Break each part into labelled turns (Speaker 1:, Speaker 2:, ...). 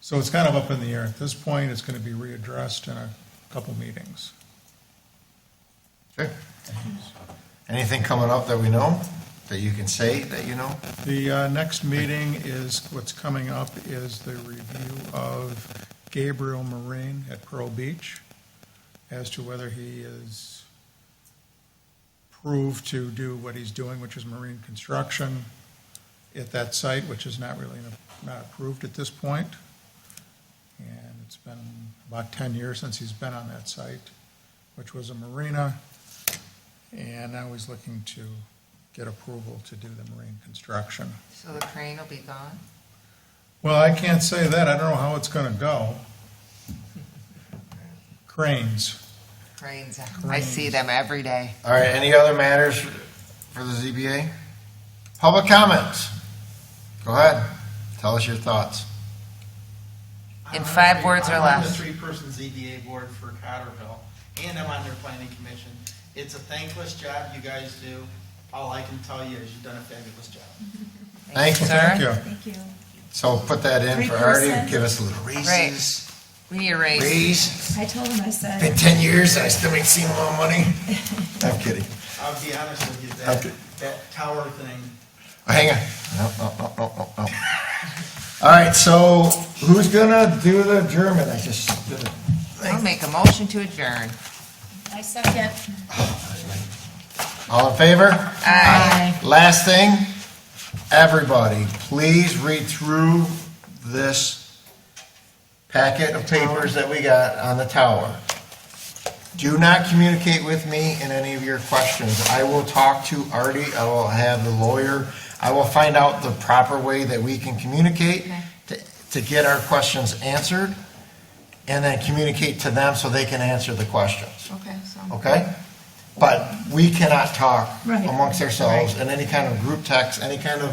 Speaker 1: So it's kind of up in the air. At this point, it's going to be readdressed in a couple meetings.
Speaker 2: Okay. Anything coming up that we know, that you can say that you know?
Speaker 1: The uh, next meeting is, what's coming up is the review of Gabriel Marine at Pearl Beach as to whether he is proved to do what he's doing, which is marine construction at that site, which is not really, not approved at this point. And it's been about 10 years since he's been on that site, which was a marina. And now he's looking to get approval to do the marine construction.
Speaker 3: So the crane will be gone?
Speaker 1: Well, I can't say that. I don't know how it's going to go. Cranes.
Speaker 3: Cranes, I see them every day.
Speaker 2: All right, any other matters for the ZBA? Public comments? Go ahead, tell us your thoughts.
Speaker 3: In five words or
Speaker 4: I'm on
Speaker 3: less.
Speaker 4: the three-person ZBA board for Cotterville, and I'm on their planning commission. It's a thankless job you guys do. All I can tell you is you've done a fabulous job.
Speaker 2: Thank you.
Speaker 3: sir.
Speaker 1: Thank you.
Speaker 5: Thank you.
Speaker 2: So put that in for Artie, give us a little raises.
Speaker 3: Right. We need a raise.
Speaker 2: Raise,
Speaker 5: I told him, I said,
Speaker 2: been ten years, I still ain't seen a lot of money. I'm kidding.
Speaker 4: I'll be honest with you, that,
Speaker 2: Okay.
Speaker 4: that tower thing,
Speaker 2: Oh, Hang on. No, no, no, no, no, no. All right, so who's gonna do the German? I just did it.
Speaker 3: I'll make a motion to adjourn.
Speaker 5: I second.
Speaker 2: All in favor?
Speaker 3: Aye.
Speaker 2: Last thing, everybody, please read through this packet of papers that we got on the tower. Do not communicate with me in any of your questions. I will talk to Artie, I will have the lawyer, I will find out the proper way that we can communicate
Speaker 3: Okay.
Speaker 2: to, to get our questions answered, and then communicate to them so they can answer the questions
Speaker 3: Okay, so.
Speaker 2: okay? But we cannot talk
Speaker 5: Right.
Speaker 2: amongst ourselves in any kind of group text, any kind of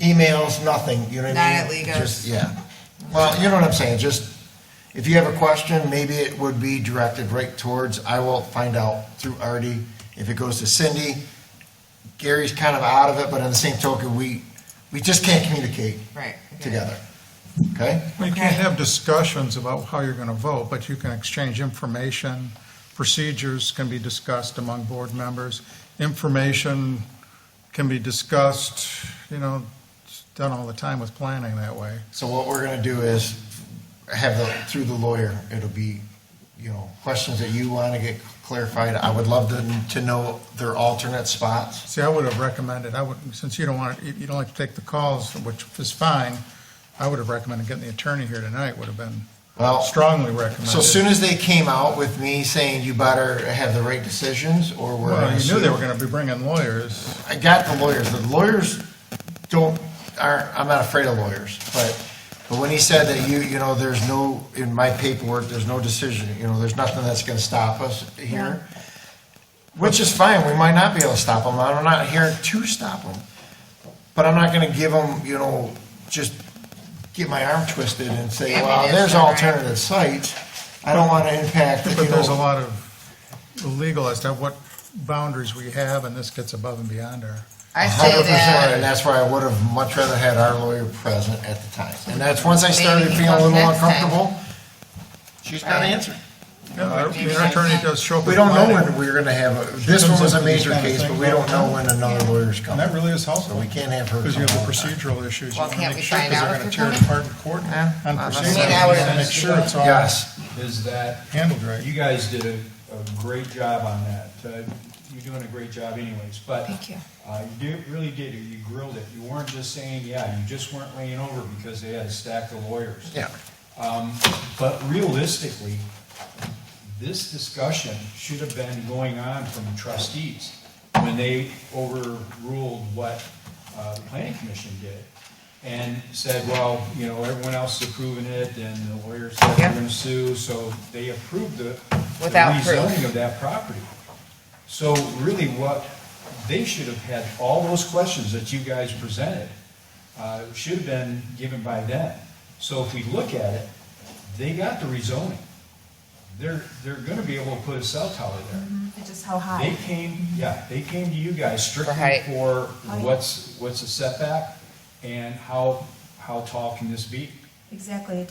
Speaker 2: emails, nothing, you know what
Speaker 3: Not
Speaker 2: I mean?
Speaker 3: at Legos.
Speaker 2: Just- Yeah. Well, you know what I'm saying, just, if you have a question, maybe it would be directed right towards, I will find out through Artie. If it goes to Cindy, Gary's kind of out of it, but on the same token, we, we just can't communicate
Speaker 3: Right. okay.
Speaker 2: together, okay?
Speaker 1: We can't have discussions about how you're going to vote, but you can exchange information. Procedures can be discussed among board members. Information can be discussed, you know, it's done all the time with planning that way.
Speaker 2: So what we're gonna do is have the, through the lawyer, it'll be, you know, questions that you wanna get clarified. I would love to, to know their alternate spots.
Speaker 1: See, I would have recommended, I would, since you don't want, you you don't like to take the calls, which is fine, I would have recommended getting the attorney here tonight, would have been
Speaker 2: Well,
Speaker 1: strongly recommended.
Speaker 2: so as soon as they came out with me saying you better have the right decisions or we're.
Speaker 1: Well,
Speaker 2: gonna
Speaker 1: you knew they
Speaker 2: sue."
Speaker 1: were going to be bringing lawyers.
Speaker 2: I got the lawyers. The lawyers don't, aren't, I'm not afraid of lawyers, but, but when he said that you, you know, there's no, in my paperwork, there's no decision, you know, there's nothing that's gonna stop us here. Which is fine, we might not be able to stop them. I'm not here to stop them. But I'm not gonna give them, you know, just get my arm twisted and say,
Speaker 3: Yeah, I mean,
Speaker 2: well,
Speaker 3: that's
Speaker 2: there's
Speaker 3: not right."
Speaker 2: alternative sites. I don't wanna impact, you
Speaker 1: But there's a
Speaker 2: know.
Speaker 1: lot of legal as to what boundaries we have, and this gets above and beyond our,
Speaker 3: I say
Speaker 2: Hundred percent,
Speaker 3: that.
Speaker 2: and that's why I would have much rather had our lawyer present at the time. And that's once I started
Speaker 3: Maybe
Speaker 2: feeling a little
Speaker 3: next time.
Speaker 2: uncomfortable. She's got to answer.
Speaker 1: Yeah, our our attorney does show up.
Speaker 2: We
Speaker 1: with
Speaker 2: don't know
Speaker 1: planning.
Speaker 2: when we're gonna have, a- this one was a major case, but we don't know when another lawyer's
Speaker 1: And
Speaker 2: coming.
Speaker 1: that really is
Speaker 2: So
Speaker 1: helpful,
Speaker 2: we can't have her.
Speaker 1: because you have
Speaker 2: come
Speaker 1: the
Speaker 2: all time.
Speaker 1: procedural issues. You
Speaker 3: Well,
Speaker 1: wanna
Speaker 3: can't we
Speaker 1: make sure,
Speaker 3: find
Speaker 1: 'cause
Speaker 3: out
Speaker 1: they're
Speaker 3: if
Speaker 1: gonna tear
Speaker 3: they're
Speaker 1: it apart
Speaker 3: coming?
Speaker 1: in court
Speaker 2: Yeah.
Speaker 1: on
Speaker 2: I mean,
Speaker 1: procedure.
Speaker 3: that
Speaker 1: You
Speaker 3: was-
Speaker 1: gotta Make sure it's all
Speaker 2: Yes,
Speaker 6: is that
Speaker 1: handled right.
Speaker 6: you guys did a, a great job on that. Uh, You're doing a great job anyways, but.
Speaker 5: Thank you.
Speaker 6: Uh, you did, really did, you grilled it. You weren't just saying, yeah, you just weren't laying over because they had a stack of lawyers.
Speaker 2: yeah.
Speaker 6: Um, But realistically, this discussion should have been going on from trustees when they overruled what uh, the planning commission did and said, well, you know, everyone else is approving it and the lawyer said
Speaker 3: Yeah.
Speaker 6: they're going to sue, so they approved the the
Speaker 3: Without proof.
Speaker 6: rezoning of that property. So really what, they should have had all those questions that you guys presented, uh, should have been given by them. So if we look at it, they got the rezoning. They're, they're gonna be able to put a cell tower there.
Speaker 3: Mm-hmm.
Speaker 5: Just how
Speaker 6: They
Speaker 5: high?
Speaker 6: came, yeah, they came to you guys strictly
Speaker 3: height.
Speaker 6: for
Speaker 5: Oh, yeah.
Speaker 6: what's, what's a setback and how, how tall can this be?
Speaker 5: Exactly. It